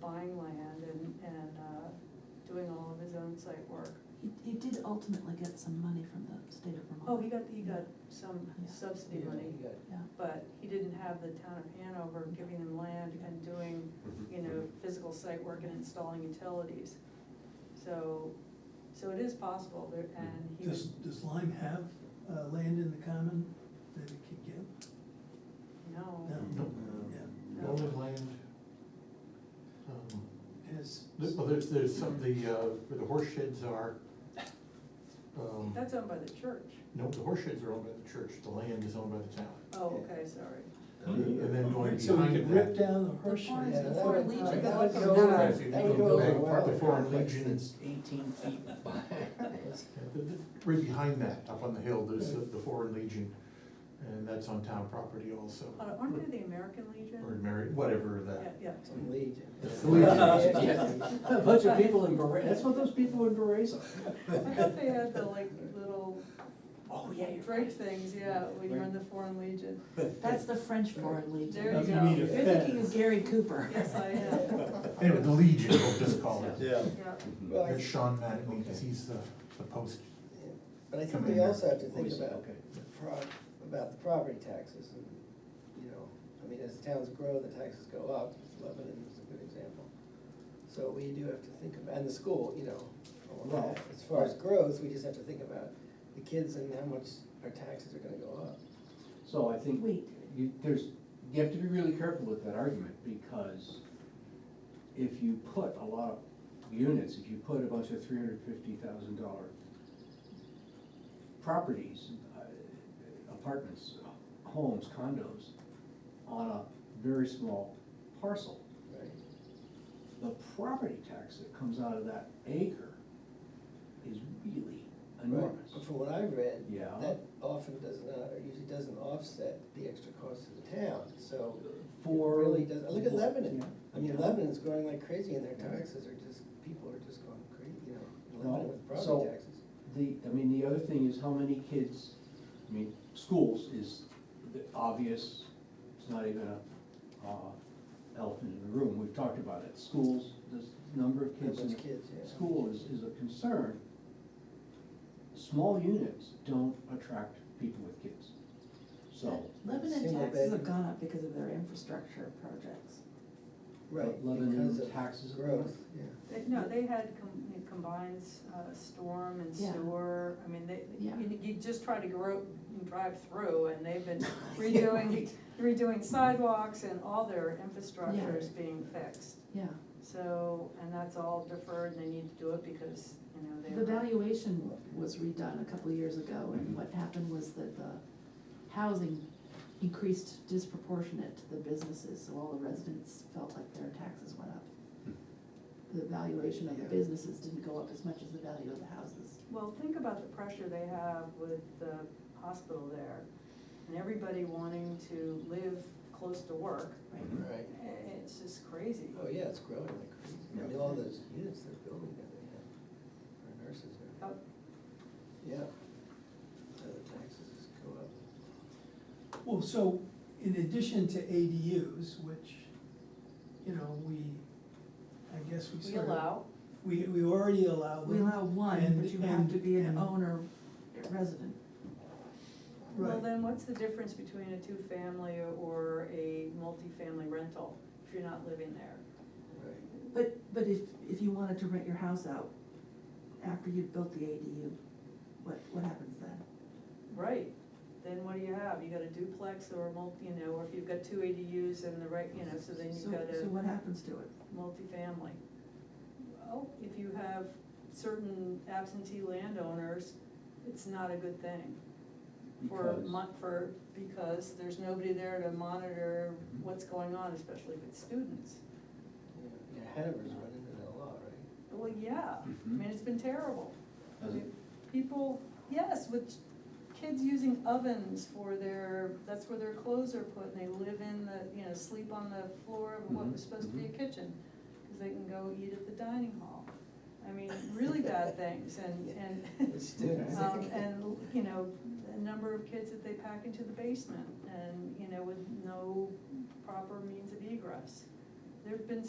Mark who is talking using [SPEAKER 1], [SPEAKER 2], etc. [SPEAKER 1] buying land and, and, uh, doing all of his own site work.
[SPEAKER 2] He, he did ultimately get some money from the state of Vermont.
[SPEAKER 1] Oh, he got, he got some
[SPEAKER 2] Yeah.
[SPEAKER 1] subsidy
[SPEAKER 3] Yeah,
[SPEAKER 1] money,
[SPEAKER 3] you got it.
[SPEAKER 2] Yeah,
[SPEAKER 1] but he didn't have the town of Hanover giving him land and doing, you know, physical site work and installing utilities. So, so it is possible there, and he
[SPEAKER 4] Does,
[SPEAKER 1] was,
[SPEAKER 4] does Lime have, uh, land in the common that it can give?
[SPEAKER 1] no.
[SPEAKER 4] No, yeah,
[SPEAKER 1] No.
[SPEAKER 5] Norwood Land. um,
[SPEAKER 4] has,
[SPEAKER 5] there- Well, there's, there's some, the, uh, where the horse sheds are. um,
[SPEAKER 1] That's owned by the church.
[SPEAKER 5] No, the horse sheds are owned by the church, the land is owned by the town.
[SPEAKER 1] Oh, okay, sorry.
[SPEAKER 5] And then going
[SPEAKER 4] Oh, so we
[SPEAKER 5] behind
[SPEAKER 4] could
[SPEAKER 5] that,
[SPEAKER 4] rip
[SPEAKER 5] the
[SPEAKER 4] down the horse
[SPEAKER 2] The
[SPEAKER 4] sheds.
[SPEAKER 2] farms before
[SPEAKER 3] that would-
[SPEAKER 2] Legion.
[SPEAKER 3] that
[SPEAKER 2] That
[SPEAKER 3] would
[SPEAKER 2] would
[SPEAKER 3] go-
[SPEAKER 1] go-
[SPEAKER 3] that would go
[SPEAKER 5] Yeah.
[SPEAKER 3] over well.
[SPEAKER 5] Part before
[SPEAKER 3] Complex
[SPEAKER 5] Legion.
[SPEAKER 3] that's Eighteen feet back.
[SPEAKER 5] the- right behind that, up on the hill, there's the the Foreign Legion, and that's on town property also.
[SPEAKER 1] Uh, Aren't they the American Legion?
[SPEAKER 5] Or uh, Mary, whatever
[SPEAKER 1] Yeah,
[SPEAKER 5] that.
[SPEAKER 1] yeah.
[SPEAKER 3] Some legion.
[SPEAKER 5] It's the legion.
[SPEAKER 3] A bunch of people in Beret, that's what those people in Berets are.
[SPEAKER 1] I thought they had the like little
[SPEAKER 3] Oh, yeah, you're
[SPEAKER 1] Drake things, yeah, when you're in the Foreign Legion.
[SPEAKER 2] That's the French Foreign Legion.
[SPEAKER 1] There you
[SPEAKER 4] You
[SPEAKER 1] go.
[SPEAKER 4] mean
[SPEAKER 2] You're
[SPEAKER 4] a
[SPEAKER 2] thinking of
[SPEAKER 4] fence.
[SPEAKER 2] Gary Cooper.
[SPEAKER 1] Yes, I am,
[SPEAKER 5] Anyway, the Legion, we'll just call it.
[SPEAKER 6] Yeah.
[SPEAKER 1] yeah.
[SPEAKER 6] Well, I-
[SPEAKER 5] There's Sean Mattingly, because he's the, the post.
[SPEAKER 6] But I
[SPEAKER 5] Come
[SPEAKER 6] think we
[SPEAKER 5] in there.
[SPEAKER 6] also have to think
[SPEAKER 3] Always,
[SPEAKER 6] about,
[SPEAKER 3] okay.
[SPEAKER 6] the pro- about the property taxes and, you know, I mean, as towns grow, the taxes go up, Lebanon is a good example. So we do have to think about, and the school, you know, all of that. as far as growth, we just have to think about the kids and how much our taxes are gonna go up.
[SPEAKER 3] So I think
[SPEAKER 2] Wait.
[SPEAKER 3] you, there's, you have to be really careful with that argument, because if you put a lot of units, if you put a bunch of three hundred fifty thousand dollar properties, uh, apartments, homes, condos, on a very small parcel,
[SPEAKER 6] Right.
[SPEAKER 3] the property tax that comes out of that acre is really enormous.
[SPEAKER 6] But From what I read,
[SPEAKER 3] Yeah.
[SPEAKER 6] that often does not, or usually doesn't offset the extra cost to the town, so.
[SPEAKER 3] For-
[SPEAKER 6] It really does, look at Lebanon,
[SPEAKER 3] Yeah.
[SPEAKER 6] I mean,
[SPEAKER 3] Yeah.
[SPEAKER 6] Lebanon's growing like crazy and their taxes are just, people are just going crazy, you know, in Lebanon
[SPEAKER 3] Well,
[SPEAKER 6] with
[SPEAKER 3] so-
[SPEAKER 6] property taxes.
[SPEAKER 3] The, I mean, the other thing is how many kids, I mean, schools is the obvious, it's not even a, uh, elephant in the room, we've talked about it. Schools, the number of kids
[SPEAKER 6] How
[SPEAKER 3] in
[SPEAKER 6] much kids, yeah.
[SPEAKER 3] school is, is a concern. Small units don't attract people with kids, so.
[SPEAKER 2] Lebanon
[SPEAKER 6] Single
[SPEAKER 2] taxes
[SPEAKER 6] bedroom.
[SPEAKER 2] have gone up because of their infrastructure projects.
[SPEAKER 6] Right,
[SPEAKER 3] Lebanon
[SPEAKER 6] because of
[SPEAKER 3] taxes are
[SPEAKER 6] growth,
[SPEAKER 3] up.
[SPEAKER 6] yeah.
[SPEAKER 1] They- No, they had com- combined uh, storm and
[SPEAKER 2] Yeah.
[SPEAKER 1] sewer, I mean, they,
[SPEAKER 2] Yeah.
[SPEAKER 1] you- you just try to grow, drive through, and they've been redoing, redoing sidewalks and all their infrastructure is being fixed.
[SPEAKER 2] Yeah,
[SPEAKER 1] So, and that's all deferred, and they need to do it because, you know, they.
[SPEAKER 2] the valuation was redone a couple of years ago, and what happened was that the housing increased disproportionate to the businesses, so all the residents felt like their taxes went up. The valuation of the
[SPEAKER 6] Yeah.
[SPEAKER 2] businesses didn't go up as much as the value of the houses.
[SPEAKER 1] Well, think about the pressure they have with the hospital there, and everybody wanting to live close to work.
[SPEAKER 6] Right,
[SPEAKER 1] Eh, It's just crazy.
[SPEAKER 6] oh yeah, it's growing like crazy, I mean, all those units they're building that they have, our nurses are,
[SPEAKER 1] Oh,
[SPEAKER 6] yeah. So the taxes just go up.
[SPEAKER 4] Well, so in addition to ADUs, which, you know, we, I guess we
[SPEAKER 1] We
[SPEAKER 4] sort of.
[SPEAKER 1] allow,
[SPEAKER 4] We, we already allow them.
[SPEAKER 2] We allow one,
[SPEAKER 4] and-
[SPEAKER 2] but you have to be an
[SPEAKER 4] and-
[SPEAKER 2] owner resident.
[SPEAKER 1] well,
[SPEAKER 4] Right.
[SPEAKER 1] then what's the difference between a two-family or a multifamily rental if you're not living there?
[SPEAKER 6] Right.
[SPEAKER 2] But, but if, if you wanted to rent your house out after you'd built the ADU, what, what happens then?
[SPEAKER 1] Right, then what do you have? You got a duplex or a multi, you know, or if you've got two ADUs and the right, you know, so then
[SPEAKER 2] So,
[SPEAKER 1] you've got a.
[SPEAKER 2] so what happens to it?
[SPEAKER 1] multifamily. Well, if you have certain absentee landowners, it's not a good thing. For,
[SPEAKER 3] Mhm. Because-
[SPEAKER 1] mon- for, because there's nobody there to monitor what's going on, especially if it's students.
[SPEAKER 6] Yeah, yeah, Hanover's run into that a lot, right?
[SPEAKER 1] Well, yeah, I mean, it's been terrible.
[SPEAKER 3] Mm-hmm. Has it?
[SPEAKER 1] People, yes, with kids using ovens for their, that's where their clothes are put, and they live in the, you know, sleep on the floor of what was supposed to be a
[SPEAKER 3] Mhm, mhm.
[SPEAKER 1] kitchen, because they can go eat at the dining hall. I mean, really bad things, and,
[SPEAKER 6] The
[SPEAKER 1] and,
[SPEAKER 6] students.
[SPEAKER 1] um, and, you know, the number of kids that they pack into the basement, and, you know, with no proper means of egress. There've been